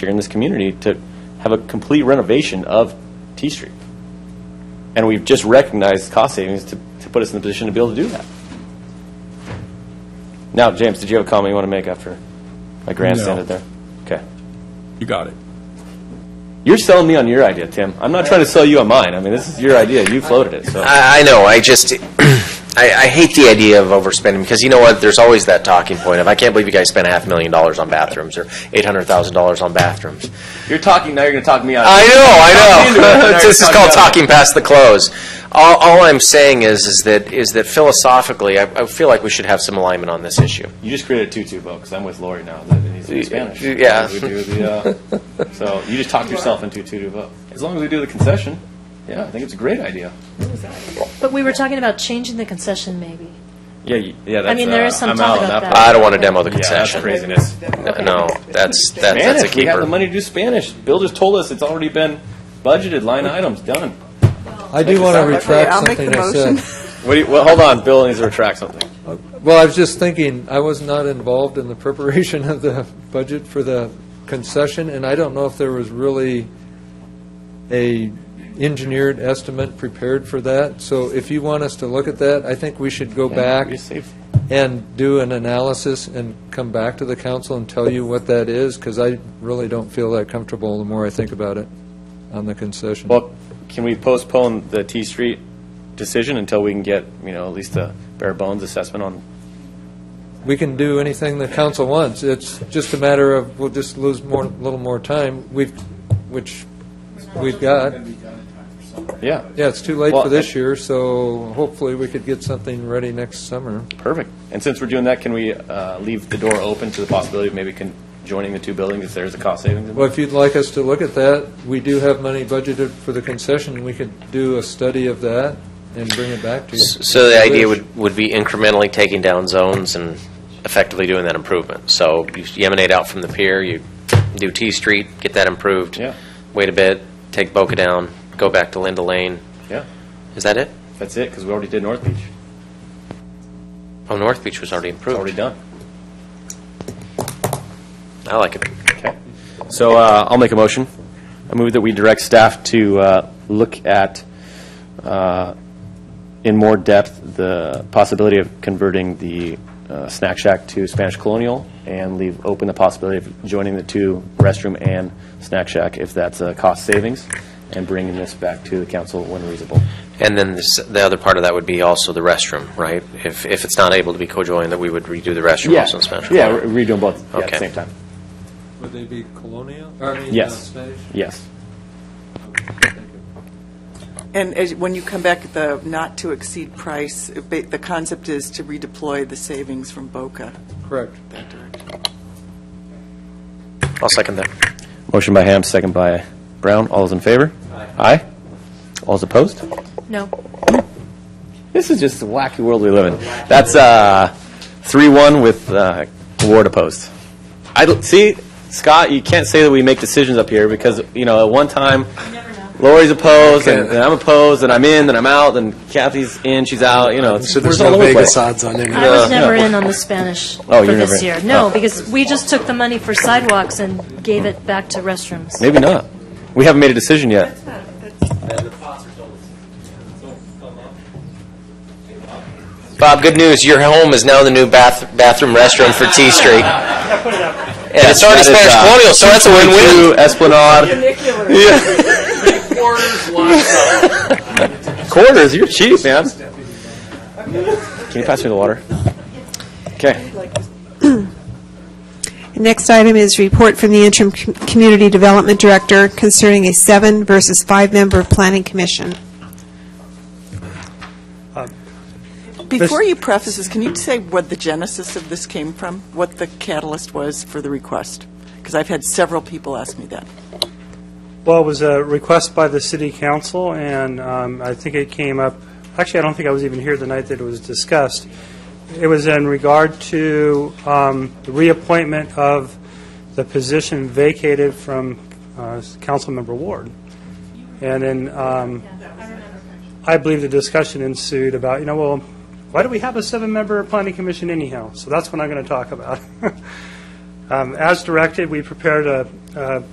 here in this community to have a complete renovation of T Street. And we've just recognized cost savings to, to put us in the position to be able to do that. Now, James, did you have a comment you want to make after I grandstanded there? Okay. You got it. You're selling me on your idea, Tim. I'm not trying to sell you on mine. I mean, this is your idea. You floated it, so. I, I know. I just, I, I hate the idea of overspending because you know what? There's always that talking point of, I can't believe you guys spent a half million dollars on bathrooms or eight hundred thousand dollars on bathrooms. You're talking, now you're going to talk me out. I know, I know. this is called talking. talking past the close. All, all I'm saying is, is that, is that philosophically, I, I feel like we should have some alignment on this issue. You just created a tutu boat because I'm with Lori now. That needs to be Spanish. Yeah. We do the, uh, so you just talked yourself into a tutu vote. As long as we do the concession, yeah, I think it's a great idea. But we were talking about changing the concession, maybe. Yeah, you- yeah. That's, uh, I mean, there is some I'm talk out on about that. that. I don't want to demo the part. Yeah, that's concession. craziness. No, that's, that, that's a Spanish. We have the keeper. money to do Spanish. Bill just told us it's already been budgeted. Line items done. I do want to retract I'll make the something I said. motion. What do you, well, hold on. Bill needs to retract something. Well, I was just thinking, I was not involved in the preparation of the budget for the concession, and I don't know if there was really a engineered estimate prepared for that. So if you want us to look at that, I think we should go back You saved- and do an analysis and come back to the council and tell you what that is, because I really don't feel that comfortable the more I think about it on the concession. Well, can we postpone the T Street decision until we can get you know at least a bare bones assessment on we can do anything the council wants. It's just a matter of, we'll just lose more, a little more time, we've, which we've got. yeah Yeah, it's too late Well, for I- this year, so hopefully we could get something ready next summer. Perfect. And since we're doing that, can we uh, leave the door open to the possibility of maybe con- joining the two buildings if there's a cost savings? Well, if you'd like us to look at that, we do have money budgeted for the concession, we could do a study of that and bring it back to you. So the If you idea wish. would, would be incrementally taking down zones and effectively doing that improvement. So you emanate out from the pier, you do T Street, get that improved. Yeah. Wait a bit, take Boca down, go back to Linda Lane. Yeah, Is that it? that's it, because we already did North Beach. Oh, North Beach was already It's already improved. done. I like it. Okay. So uh, I'll make a motion. I move that we direct staff to uh, look at, uh, in more depth, the possibility of converting the uh, snack shack to Spanish Colonial and leave open the possibility of joining the two restroom and snack shack if that's a cost savings, and bringing this back to the council when reasonable. And then this- the other part of that would be also the restroom, right? If, if it's not able to be co-joined, that we would redo the restroom also in Spanish. Yeah, we're redoing both yeah, at the Okay. same time. Would they be colonial, I mean, uh, Yes. Spanish? Yes. And as- when you come back at the not-to-exceed price, ba- the concept is to redeploy the savings from Boca Correct. that direction. I'll second that. Motion by Ham, second by Brown. All those in favor? Aye. All those opposed? No. This is just the wacky world we live in. That's uh, 3-1 with uh, Ward opposed. I don't, see, Scott, you can't say that we make decisions up here because, you know, at one time, Lori's opposed, and and I'm opposed, and I'm in, and I'm out, and Kathy's in, she's out, you know. it's- So there's we're all no over the place. Vegas odds on any I of was Yeah. never in on the Spanish Oh, for you're never this in. year. No, Oh. because we just took the money for sidewalks and gave it back to restrooms. Maybe not. We haven't made a decision yet. Bob, good news. Your home is now the new bath, bathroom restroom for T Street. And it's already That is, Spanish uh, colonial, so that's a win-win. 222 Esplanade. Quarters, you're cheap, man. Can you pass me the water? Okay. Next item is report from the interim Com- community development director concerning a seven versus five-member planning commission. Before you preface this, can you say what the genesis of this came from? What the catalyst was for the request? Because I've had several people ask me that. Well, it was a request by the city council, and um, I think it came up, actually, I don't think I was even here the night that it was discussed. It was in regard to um, the reappointment of the position vacated from uh, Councilmember Ward. And then um, I believe the discussion ensued about, you know, well, why do we have a seven-member planning commission anyhow? So that's what I'm going to talk about. Um, As directed, we prepared a- a